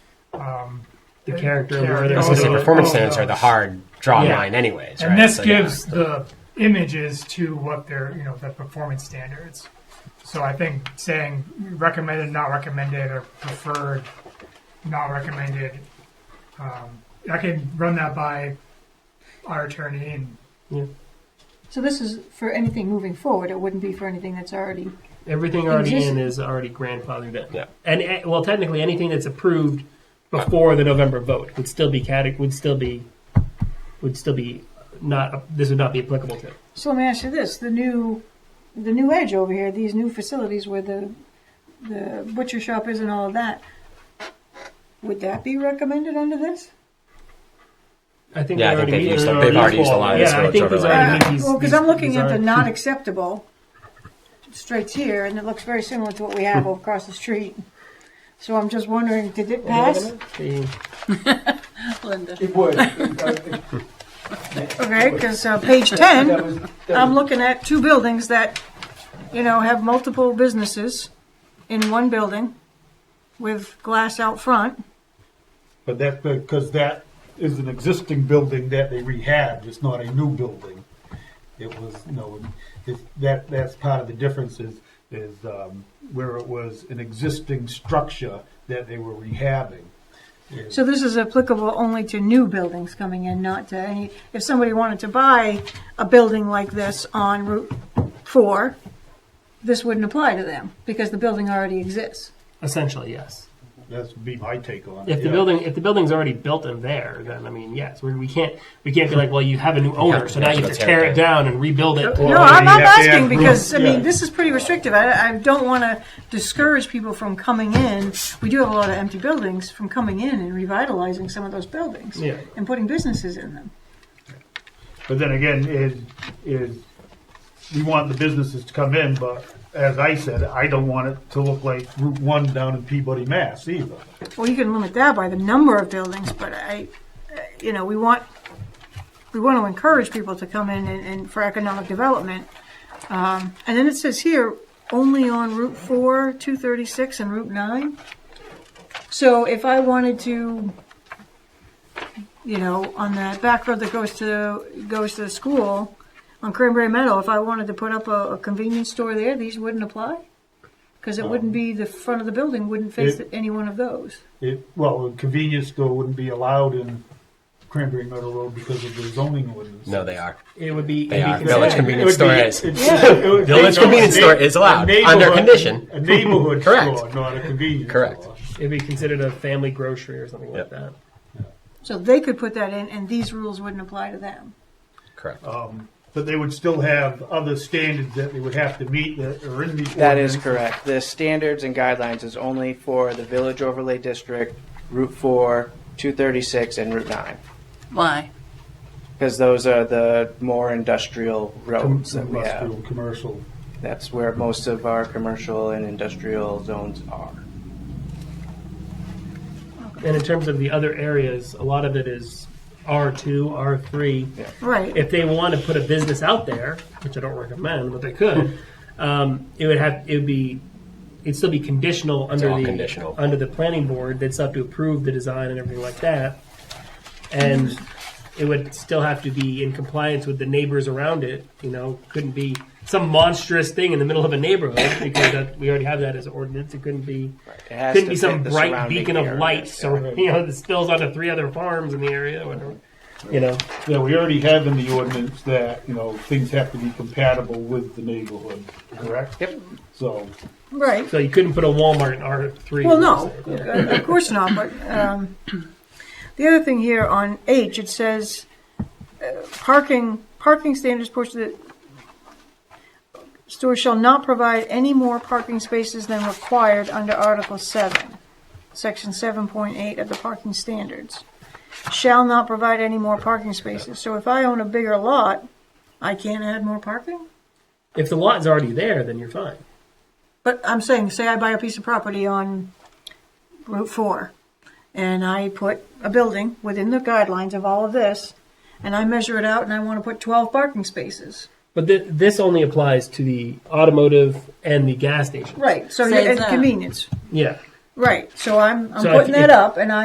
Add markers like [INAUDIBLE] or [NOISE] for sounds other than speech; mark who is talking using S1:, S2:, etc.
S1: the character. of where
S2: Character.
S1: they're
S2: Oh,
S3: So
S2: so
S3: the
S1: going.
S3: performance standards are the hard draw
S1: Yeah.
S3: line, anyways.
S2: And
S3: right?
S2: this
S3: So, yeah.
S2: gives the images to what their, you know, the performance standards. So I think saying recommended, not recommended, or preferred, not recommended, um, I can run that by our attorney and
S4: So this is for anything moving forward. It wouldn't be for anything that's already.
S1: Everything already
S4: Exist-
S1: in is already grandfathered in.
S3: Yeah.
S1: And eh, well, technically, anything that's approved before the November vote would still be cate- would still be would still be not this would not be applicable to.
S4: So let me ask you this: the new, the new edge over here, these new facilities where the, the butcher shop is and all of that. Would that be recommended under this?
S1: I think
S3: Yeah,
S1: they
S3: I think
S1: already
S3: they've
S1: meet-
S3: used
S1: they're
S3: a- they've already used a
S1: equal.
S3: lot of
S1: yeah,
S3: this
S1: I
S3: village
S1: think there's
S3: overlay.
S1: already
S4: Uh,
S1: meet these-
S4: well, because
S1: these-
S4: I'm looking
S1: these
S4: at the
S1: are-
S4: not acceptable straights here, and it looks very similar to what we
S1: [LAUGHS]
S4: have over across the street. So I'm just wondering, did it pass?
S1: the-
S5: Linda.
S6: It would. That
S4: Okay, because uh, page ten,
S6: was- that
S1: Um,
S4: I'm
S6: was-
S4: looking at two buildings that, you know, have multiple businesses in one building with glass out front.
S7: But that's because that is an existing building that they rehabbed, it's not a new building. It was, you know, it's, that, that's part of the difference is, is, um, where it was an existing structure that they were rehabbing. Is-
S4: So this is applicable only to new buildings coming in, not to any, if somebody wanted to buy a building like this on Route Four, this wouldn't apply to them because the building already exists.
S1: essentially yes.
S7: That's be my take on it.
S1: If the
S7: yeah.
S1: building if the building's already built and there, then I mean yes, we, we can't we can't be like well you have a new owner, so now you have to tear it down and rebuild it.
S4: No, I'm,
S7: you
S4: I'm
S7: have to
S4: asking
S7: add
S4: because,
S7: rules,
S4: I mean,
S7: yeah.
S4: this is pretty restrictive. I, I don't want to discourage people from coming in. We do have a lot of empty buildings from coming in and revitalizing some of those buildings
S1: Yeah.
S4: and putting businesses in them.
S7: But then again, is, is, we want the businesses to come in, but as I said, I don't want it to look like Route One down in Peabody, Mass either.
S4: Well, you can limit that by the number of buildings, but I, uh, you know, we want, we want to encourage people to come in and, and for economic development. Um, and then it says here, only on Route four, two thirty-six and Route nine. So if I wanted to, you know, on that back road that goes to, goes to the school, on Cranberry Meadow, if I wanted to put up a, a convenience store there, these wouldn't apply? Cause it wouldn't be, the front of the building wouldn't face
S7: It-
S4: any one of those.
S7: It, well, a convenience store wouldn't be allowed in Cranberry Meadow Road because of the zoning ordinance.
S3: No, they are.
S1: It would be,
S3: They
S1: it'd be
S3: are.
S1: considered-
S3: Village convenience store is. Village
S7: Village
S3: convenience store is allowed, under condition. [LAUGHS]
S7: A neighborhood
S3: Correct.
S7: store, not a convenience
S3: Correct.
S7: store.
S1: it'd be considered a family grocery or something like
S3: Yep.
S1: that.
S4: So they could put that in, and these rules wouldn't apply to them.
S3: Correct.
S7: Um, But they would still have other standards that they would have to meet that are in the.
S2: That
S7: ordinance.
S2: is
S8: Correct. The standards and guidelines is only for the Village Overlay District, Route 4, 236, and Route 9,
S5: Why?
S8: because those are the more industrial
S7: Com-
S8: roads that we have.
S7: Industrial, commercial.
S8: That's where most of our commercial and industrial zones are.
S1: And in terms of the other areas, a lot of it is R two, R three.
S4: Right.
S1: If they want to put a business out there, which I don't recommend, but they could, um, it would have it would be it'd still be conditional under
S3: all
S1: the
S3: conditional.
S1: under the planning board. They'd still have to approve the design and everything like that, and it would still have to be in compliance with the neighbors around it. You know, couldn't be some monstrous thing in the middle of a neighborhood because that, we already have that as ordinance. It couldn't be
S8: It has
S1: couldn't
S8: to
S1: be
S8: fit
S1: some
S8: the
S1: bright
S8: surrounding
S1: beacon of
S8: area.
S1: light, so you know that spills onto three other farms in the area, or whatever. You know,
S7: Yeah, we already have in the ordinance that, you know, things have to be compatible with the neighborhood, correct?
S8: Yep.
S7: So,
S4: Right.
S1: so you couldn't put a Walmart in R three.
S4: Well, no, uh, of course not. But um, the other thing here on H, it says uh, parking parking standards portion of the store shall not provide any more parking spaces than required under Article Seven, Section seven point eight of the parking standards. Shall not provide any more parking spaces. So if I own a bigger lot, I can't add more parking.
S1: If the lot is already there, then you're fine.
S4: But I'm saying, say I buy a piece of property on Route 4 and I put a building within the guidelines of all of this and I measure it out and I want to put 12 parking spaces.
S1: But th- this only applies to the automotive and the gas station.
S4: Right. So
S5: Say
S4: it's
S5: that.
S4: convenience.
S1: Yeah.
S4: Right. So I'm, I'm
S1: So if-
S4: putting that
S1: if-
S4: up and I.